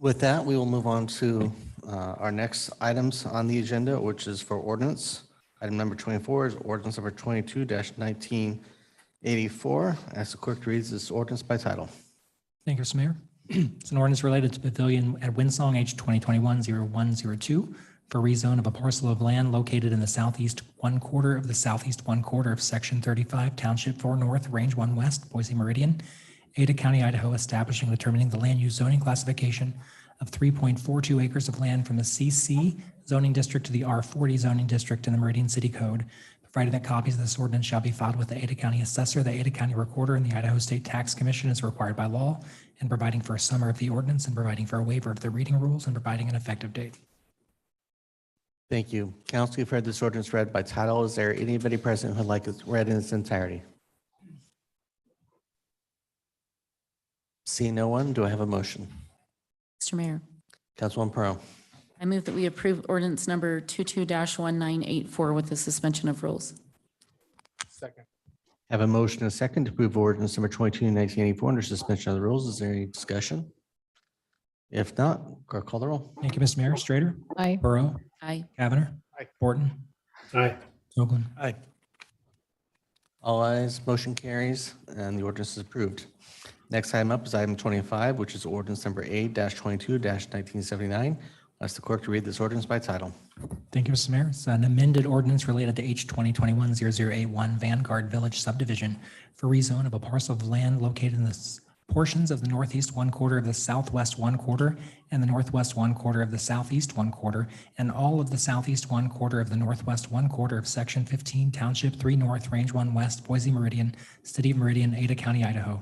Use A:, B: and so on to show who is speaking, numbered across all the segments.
A: With that, we will move on to uh, our next items on the agenda, which is for ordinance. Item number 24 is ordinance number 22-1984. Ask the clerk to read this ordinance by title.
B: Thank you, Mr. Mayor. It's an ordinance related to pavilion at Windsong, H 2021-0102, for rezone of a parcel of land located in the southeast one quarter of the southeast one quarter of Section 35, Township 4 North, Range 1 West, Boise Meridian, Ada County, Idaho, establishing and determining the land use zoning classification of 3.42 acres of land from the CC zoning district to the R40 zoning district in the Meridian City Code, provided that copies of this ordinance shall be filed with the Ada County Assessor, the Ada County Recorder, and the Idaho State Tax Commission as required by law, and providing for a summary of the ordinance, and providing for a waiver of the reading rules, and providing an effective date.
A: Thank you. Council, you've heard this ordinance read by title. Is there anybody present who'd like it read in its entirety? See no one, do I have a motion?
C: Mr. Mayor,
A: Councilwoman Pearl,
C: I move that we approve ordinance number 22-1984 with the suspension of rules.
A: have a motion and a second to approve ordinance number 22-1984 under suspension of the rules. Is there any discussion? If not, clerk call the roll.
B: Thank you, Mr. Mayor. Strater,
C: Aye.
B: Burrow,
C: Aye.
B: Cavanagh,
D: Aye.
B: Borton,
D: Aye.
B: Hoagland.
A: Aye. All ayes, motion carries, and the ordinance is approved. Next item up is item 25, which is ordinance number 8-22-1979. Ask the clerk to read this ordinance by title.
B: Thank you, Mr. Mayor. It's an amended ordinance related to H 2021-0081 Vanguard Village subdivision for rezone of a parcel of land located in the s- portions of the northeast one quarter of the southwest one quarter and the northwest one quarter of the southeast one quarter and all of the southeast one quarter of the northwest one quarter of Section 15 Township 3 North, Range 1 West, Boise Meridian, City of Meridian, Ada County, Idaho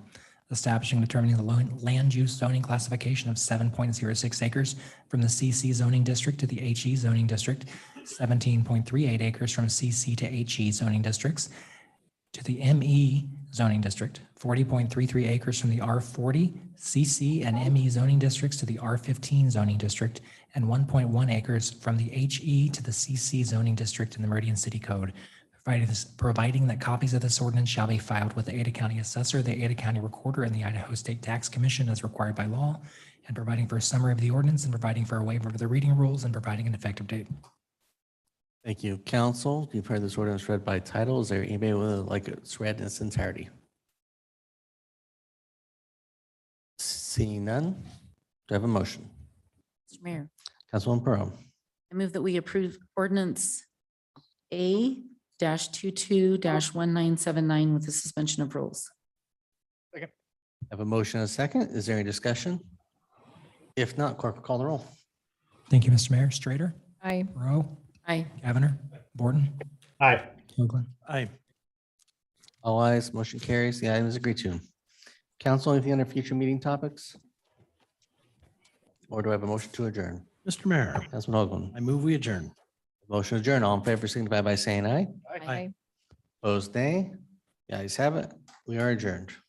B: establishing and determining the lo- land use zoning classification of 7.06 acres from the CC zoning district to the HE zoning district, 17.38 acres from CC to HE zoning districts, to the ME zoning district, 40.33 acres from the R40, CC, and ME zoning districts to the R15 zoning district, and 1.1 acres from the HE to the CC zoning district in the Meridian City Code, providing this- providing that copies of this ordinance shall be filed with the Ada County Assessor, the Ada County Recorder, and the Idaho State Tax Commission as required by law, and providing for a summary of the ordinance, and providing for a waiver of the reading rules, and providing an effective date.
A: Thank you. Council, you've heard this ordinance read by title. Is there anybody who would like it's read in its entirety? Seeing none, do I have a motion?
C: Mr. Mayor,
A: Councilwoman Pearl,
C: I move that we approve ordinance A dash 22-1979 with the suspension of rules.
A: I have a motion and a second. Is there any discussion? If not, clerk will call the roll.
B: Thank you, Mr. Mayor. Strater,
C: Aye.
B: Rowe,
C: Aye.
B: Cavanagh, Borton,
D: Aye.
B: Hoagland.
A: Aye. All ayes, motion carries. The item is agreed to. Council, anything under future meeting topics? Or do I have a motion to adjourn?
E: Mr. Mayor,
A: Councilman Hoagland.
E: I move we adjourn.
A: Motion to adjourn. All in favor, signify by saying aye.
E: Aye.
A: Opposed, nay. The ayes have it. We are adjourned.